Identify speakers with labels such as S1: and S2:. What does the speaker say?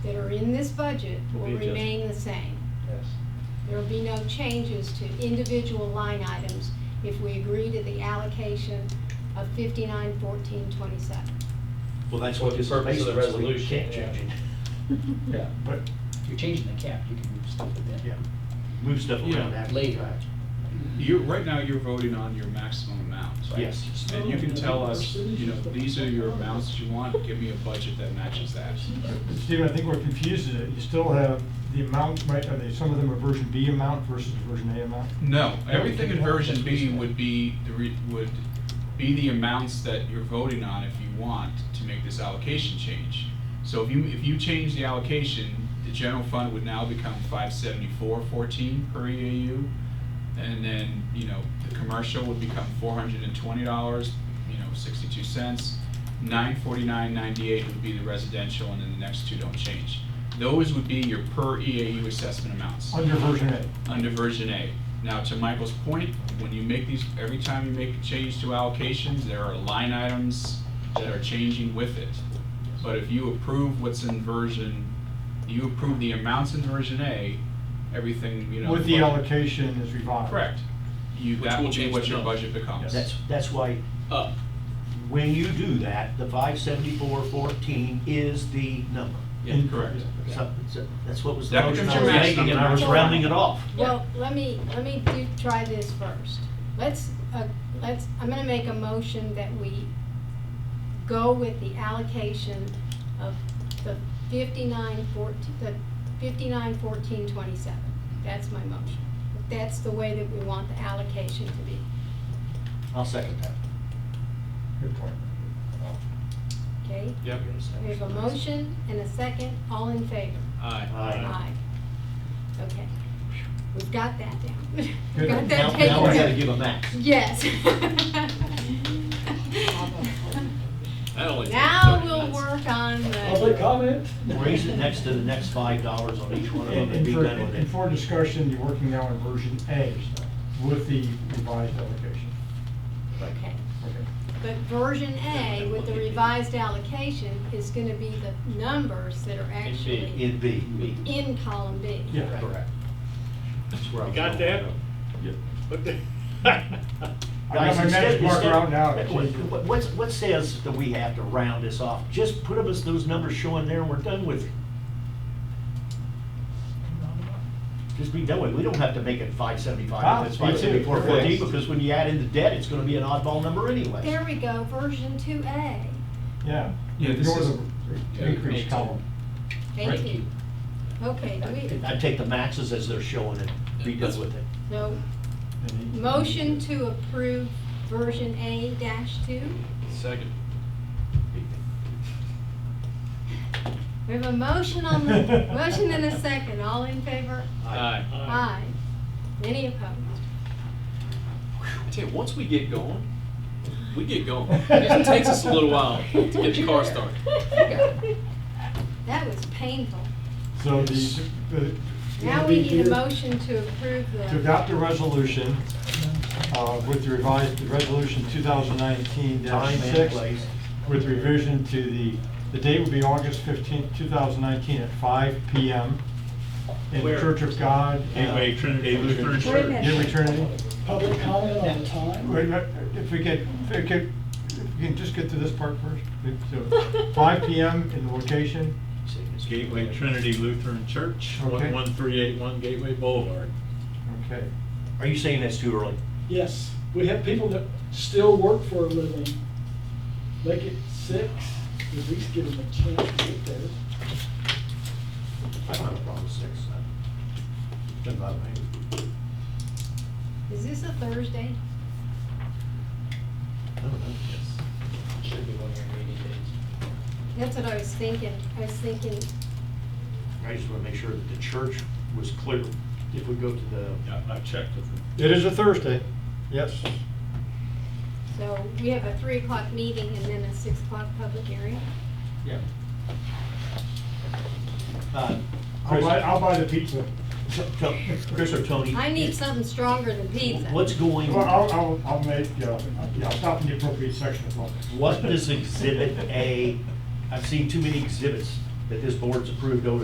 S1: in this budget
S2: Will
S1: will
S2: be adjusted.
S1: remain the same.
S2: Yes.
S1: There will be no changes to individual line items if we agree to the allocation of fifty-nine fourteen twenty-seven.
S3: Well, that's
S2: Well,
S3: what
S2: the
S3: this is
S2: purpose of the
S3: basically, you
S2: resolution,
S3: can't change it.
S2: Yeah.
S3: But,
S4: If you're changing the cap, you can move stuff with that.
S3: yeah, move stuff around
S5: Yeah.
S3: after. the
S4: Later.
S3: fact.
S5: You're, right now, you're voting on your maximum amounts, right?
S3: Yes.
S5: And you can tell us, you know, these are your amounts you want, give me a budget that matches that.
S6: Stephen, I think what confuses it, you still have the amount, right, are they, some of them are version B amount versus version A amount?
S5: No, everything in version B would be, the re- would be the amounts that you're voting on if you want to make this allocation change. So if you, if you change the allocation, the general fund would now become five seventy-four fourteen per EAU. And then, you know, the commercial would become four hundred and twenty dollars, you know, sixty-two cents. Nine forty-nine ninety-eight would be the residential, and then the next two don't change. Those would be your per EAU assessment amounts
S6: Under version A.
S5: under version A. Now, to Michael's point, when you make these, every time you make a change to allocations, there are line items that are changing with it. But if you approve what's in version, you approve the amounts in version A, everything, you know.
S6: With the allocation is revised.
S5: Correct. You,
S7: Which
S5: that
S7: will
S5: will be
S7: change
S5: what
S7: the
S5: your
S7: number.
S5: budget becomes.
S3: That's, that's why,
S7: Up.
S3: when you do that, the five seventy-four fourteen is the number.
S7: Yeah.
S5: Correct.
S3: So, so that's what was the
S5: That
S3: motion
S5: becomes
S3: I
S5: your
S3: was
S5: max
S3: making, and
S5: number.
S3: I was rounding it off.
S1: Well, let me, let me do, try this first. Let's, uh, let's, I'm gonna make a motion that we go with the allocation of the fifty-nine fourteen, the fifty-nine fourteen twenty-seven. That's my motion. That's the way that we want the allocation to be.
S3: I'll second that.
S6: Good point.
S1: Okay?
S5: Yep.
S1: We have a motion and a second, all in favor?
S3: Aye.
S1: Okay. We've got that down. We've
S6: Good.
S1: got
S3: Now,
S1: that taken
S3: now we
S1: care
S3: gotta
S1: of.
S3: give a max.
S1: Yes.
S7: That only takes
S1: Now
S7: 30
S1: we'll
S7: minutes.
S1: work on
S2: Public
S1: the,
S2: comment?
S3: Raise it next to the next five dollars on each one of them
S6: And
S3: and
S6: and
S3: be
S6: for,
S3: done with
S6: and
S3: it.
S6: for discussion, you're working now on version A with the revised allocation.
S1: okay.
S6: Okay.
S1: But version A with the revised allocation is gonna be the numbers that are actually
S3: In B.
S1: in column B.
S6: Yeah.
S3: Correct. That's where I
S7: You
S3: was
S7: got
S3: going.
S7: that?
S6: Yep.
S7: What the-
S6: I got
S3: Guys,
S6: my
S3: instead-
S6: magic marker
S3: instead-
S6: out now.
S3: What, what- what's- what says that we have to round this off? Just put up us those numbers showing there and we're done with it. Just be done with it. We don't have to make it five
S6: Ah,
S3: seventy-five, it's
S6: me too.
S3: five seventy-four forty,
S6: Correct.
S3: because when you add in the debt, it's gonna be an oddball number anyway.
S1: There we go, version two A.
S6: Yeah.
S5: Yeah, this
S6: Ignore
S5: is-
S6: the
S5: yeah,
S6: Increase
S5: makes
S6: column.
S1: Thank you. Okay, do we,
S3: I'd take the maxes as they're showing it, be done with it.
S1: no,
S6: And he-
S1: Motion to approve version A dash two.
S7: Second.
S1: We have a motion on the, motion and a second, all in favor?
S7: Aye.
S1: Aye. Any opposed?
S7: I tell you, once we get going, we get going. It just takes us a little while to get the car started.
S1: That was painful.
S6: So the. the-
S1: Now we need a
S6: here-
S1: motion to approve
S6: to
S1: the,
S6: adopt a resolution uh, with the revised, the resolution 2019
S3: Time and
S6: 6.
S3: place.
S6: With revision to the, the date would be August 15th, 2019 at 5 PM in the
S7: Where?
S6: Church of God. uh,
S3: Gateway Trinity Lutheran
S6: Church.
S3: Church.
S6: Gateway Trinity.
S4: Public comment on the time?
S6: Wait, wait, If we could, if we could, if we can just get to this part first. So, 5 PM in the location.
S7: Gateway Trinity Lutheran Church,
S6: Okay.
S7: 11381 Gateway Boulevard.
S6: Okay.
S3: Are you saying that's too early?
S8: Yes, we have people that still work for a living. Make it six, at least give them a chance to get there.
S3: I don't have a problem with six. Doesn't bother me.
S1: is this a Thursday?
S3: I don't know.
S4: Should be one of your meeting days.
S1: That's what I was thinking. I was thinking,
S3: I just want to make sure that the church was clear. If we go to the.
S7: I checked with them.
S6: It is a Thursday. Yes.
S1: so we have a three o'clock meeting and then a six o'clock public hearing.
S3: Yeah. Uh,
S6: I'll buy, I'll buy the pizza.
S3: T- T- Chris or Tony?
S1: I need something stronger than pizza.
S3: What's going,
S6: Well, I'll, I'll, I'll make, uh, yeah, I'll stop in the appropriate section of law.
S3: what does Exhibit A, I've seen too many exhibits that this board's approved over